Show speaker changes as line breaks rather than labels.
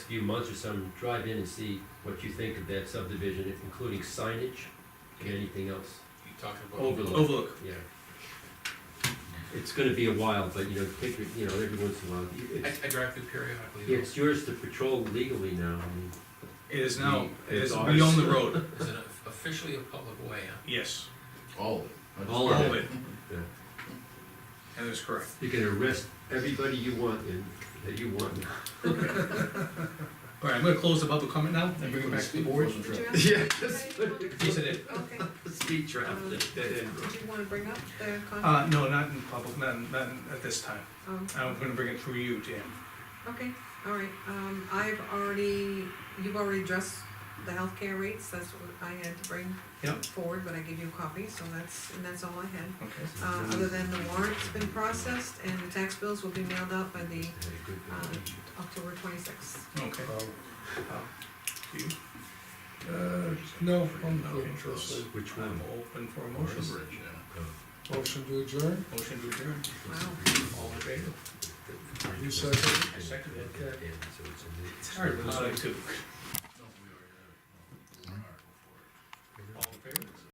few months or some, drive in and see what you think of that subdivision, including signage and anything else.
You talking about?
Overlook.
Overlook.
Yeah. It's gonna be a while, but you know, take, your- you know, every once in a while,
I,
it's,
I drive through periodically. though.
it's yours to patrol legally now, I mean,
It is now, it
It's
is,
ours.
we own the road.
Is it officially a public way, huh?
Yes,
All of it. Not just
All
all
of
of
part
it.
Yeah.
That is correct.
you can arrest everybody you want and, that you want.
All right, I'm gonna close the public comment now and bring it back to the board.
Wasn't sure.
Did you have-
Yes, it is.
Okay,
Speed trap,
Um,
that, that end road.
did you wanna bring up the con?
Uh, no, not in public, not, in- not in- at this time.
Um,
I'm gonna bring it through you, Dan.
Okay, all right, um, I've already, you've already addressed the healthcare rates, that's what I had to bring
Yep.
forward, but I gave you a copy, so that's, and that's all I had.
Okay.
Uh, other than the warrant's been processed and the tax bills will be mailed out by
Had
the,
a good
uh,
one.
October twenty-sixth.
Okay. Do you-
Uh, no, I'm
Okay.
open for a
um,
second.
Which
I'm
one?
open for a
of the
motion.
bridge, yeah.
Motion to adjourn,
Motion to adjourn.
Wow,
All in favor?
you second.
I second it.
Yeah, so it's in the-
It's hard, but I like to.